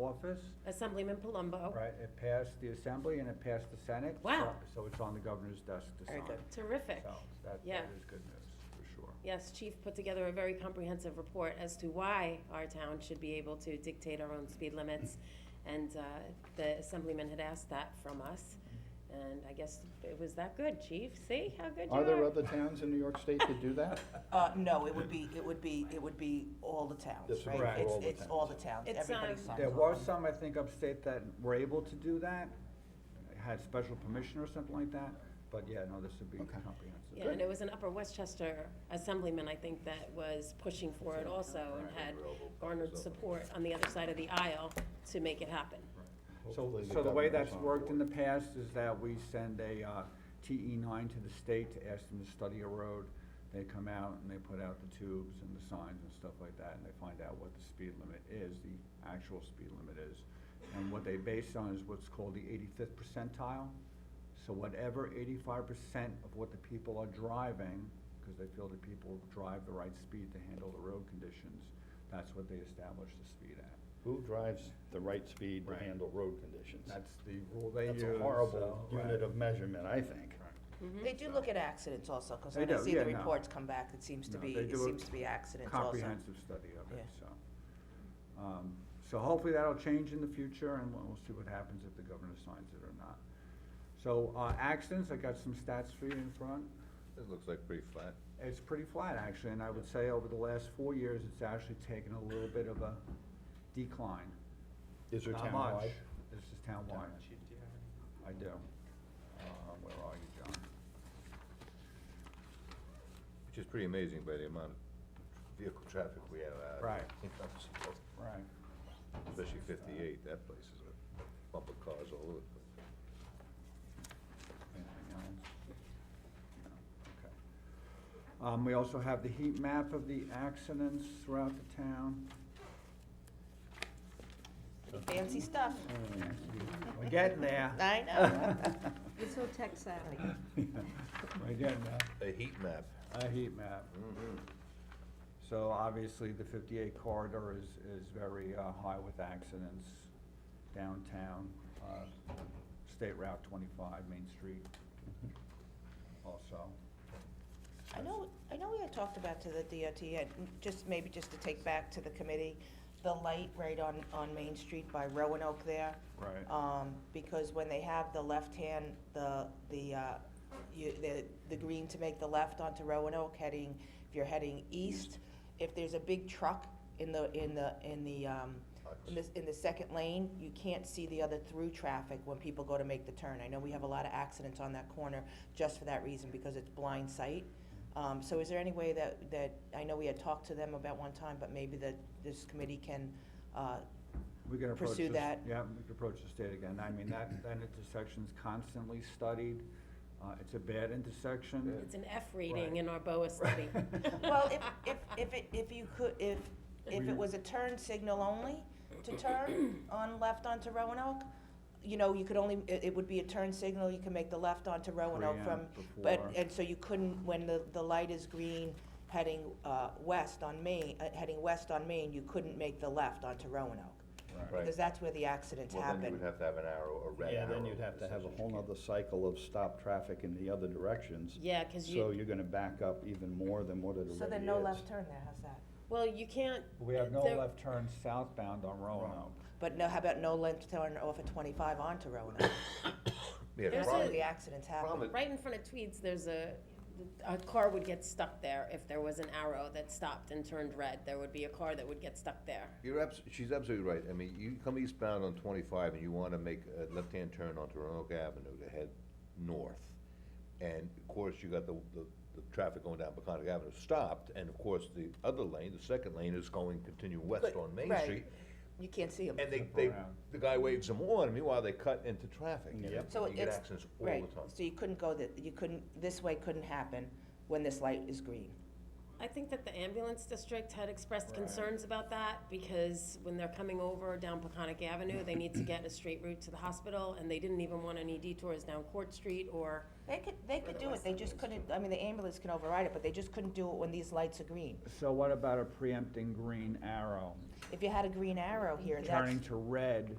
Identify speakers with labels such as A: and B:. A: office,
B: Assemblyman Palumbo.
A: right, it passed the Assembly and it passed the Senate.
B: Wow.
A: So so it's on the governor's desk to
C: Very
A: sign.
C: good.
B: Terrific.
A: So that,
B: Yeah.
A: that is good news, for sure.
B: Yes, Chief put together a very comprehensive report as to why our town should be able to dictate our own speed limits. And uh, the Assemblyman had asked that from us, and I guess it was that good, Chief. See how good you are?
D: Are there other towns in New York State that do that?
C: Uh, no, it would be, it would be, it would be all the
D: This
C: towns,
D: would
C: right?
D: be
A: Correct.
D: all the
C: It's, it's
D: towns.
C: all the towns,
B: It's,
C: everybody
B: um,
C: signs
A: There
C: off
A: was
C: on it.
A: some, I think, upstate that were able to do that, had special permission or something like that, but yeah, no, this would be
D: Okay.
A: comprehensive.
B: Yeah, and it was an Upper Westchester Assemblyman, I think, that was pushing for it also and had garnered support on the other side of the aisle to make it happen.
A: So,
D: Hopefully the
A: so the way
D: governor's
A: that's
D: on
A: worked in the
D: board.
A: past is that we send a, uh, TE nine to the state to ask them to study a road. They come out and they put out the tubes and the signs and stuff like that, and they find out what the speed limit is, the actual speed limit is. And what they base on is what's called the eighty-fifth percentile. So whatever eighty-five percent of what the people are driving, because they feel that people drive the right speed to handle the road conditions, that's what they establish the speed at.
D: Who drives the right speed to
A: Right.
D: handle road conditions?
A: That's the rule they use. uh,
D: That's a horrible
A: so, right.
D: unit of measurement, I think.
B: Mm-hmm.
C: They do look at accidents also, cause
A: They
C: when I
A: do,
C: see the
A: yeah, no.
C: reports come back, it seems to
A: No,
C: be,
A: they
C: it
A: do a
C: seems to be accidents also.
A: Comprehensive study of it,
C: Yeah.
A: so. Um, So hopefully that'll change in the future and we'll we'll see what happens if the governor signs it or not. So, uh, accidents, I got some stats for you in front.
E: This looks like pretty flat.
A: It's pretty flat actually, and I would say over the last four years, it's actually taken a little bit of a decline.
D: Is there
A: Not
D: townwide?
A: much. This is townwide. I do. Uh, where are you, John?
E: Which is pretty amazing by the amount of vehicle traffic we have out. here.
A: Right.
E: You know, so,
A: Right.
E: Especially fifty-eight, that place is a bump of cars all over the place.
A: Anything else? No, okay. Um, we also have the heat map of the accidents throughout the town.
C: Fancy stuff.
A: Mm-hmm. We're getting there.
C: I know.
F: It's so tech savvy.
A: We're getting there.
E: A heat map.
A: A heat map. So obviously, the fifty-eight corridor is, is very, uh, high with accidents downtown, uh, State Route twenty-five, Main Street also.
C: I know, I know we had talked about to the DOT, and uh, just, maybe just to take back to the committee, the light right on, on Main Street by Roanoke there.
A: Right.
C: Um, because when they have the left hand, the, the, uh, you, the, the green to make the left onto Roanoke heading, if you're heading east, if there's a big truck in the, in the, in the, um, in the, in the second lane, you can't see the other through traffic when people go to make the turn. I know we have a lot of accidents on that corner just for that reason, because it's blind sight. Um, so is there any way that, that, I know we had talked to them about one time, but maybe that this committee can, uh,
A: We can approach
C: pursue
A: this-
C: that.
A: Yeah, we can approach the state again. I mean, that, that intersection's constantly studied. Uh, it's a bad intersection.
B: It's an F rating in our BOA study.
C: Well, if, if, if it, if you could, if, if
A: We-
C: it was a turn signal only to turn on left onto Roanoke, you know, you could only, it, it would be a turn signal, you can make the left onto Roanoke from,
A: Preempt
C: but,
A: before.
C: and so you couldn't, when the, the light is green heading, uh, west on Main, uh, heading west on Main, you couldn't make the left onto Roanoke.
E: Right.
C: Because that's where the accidents
E: Well, then you
C: happen.
E: would have to have an arrow, a red
D: Yeah,
E: arrow.
D: then you'd have to have a whole nother cycle of stop traffic in the other directions.
B: Yeah, because
D: So
B: you,
D: you're gonna back up even more than what it already is.
C: So then no left turn there, how's that?
B: well, you can't.
A: We have no
B: there-
A: left turn southbound on Roanoke.
C: But no, how about no left turn off of twenty-five onto Roanoke?
E: Yeah,
B: There's
C: That's
E: problem-
C: where
B: a-
C: the accidents happen.
E: problem is-
B: Right in front of Tweeds, there's a, a car would get stuck there if there was an arrow that stopped and turned red. There would be a car that would get stuck there.
E: You're abs, she's absolutely right. I mean, you come eastbound on twenty-five and you wanna make a left-hand turn onto Roanoke Avenue to head north. And of course, you got the, the, the traffic going down Peconic Avenue stopped, and of course, the other lane, the second lane is going, continue west
C: But-
E: on Main
C: right.
E: Street.
C: You can't see them.
E: And they,
A: Flip
E: they,
A: around.
E: the guy waves them on, meanwhile, they cut into traffic. and
D: Yep.
C: So
E: You get
C: it's-
E: accidents all the
C: Right,
E: time.
C: so you couldn't go that, you couldn't, this way couldn't happen when this light is green.
B: I think that the ambulance district had expressed
A: Right.
B: concerns about that because when they're coming over down Peconic Avenue, they need to get a straight route to the hospital and they didn't even want any detours down Court Street or,
C: They could, they
B: Or
C: could
B: the
C: do it,
B: west
C: they
B: end
C: just
B: ways,
C: couldn't, I mean, the ambulance can override it, but they just couldn't do it when these lights are green.
A: So what about a preempting green arrow?
C: If you had a green arrow here, that's.
A: Turning to red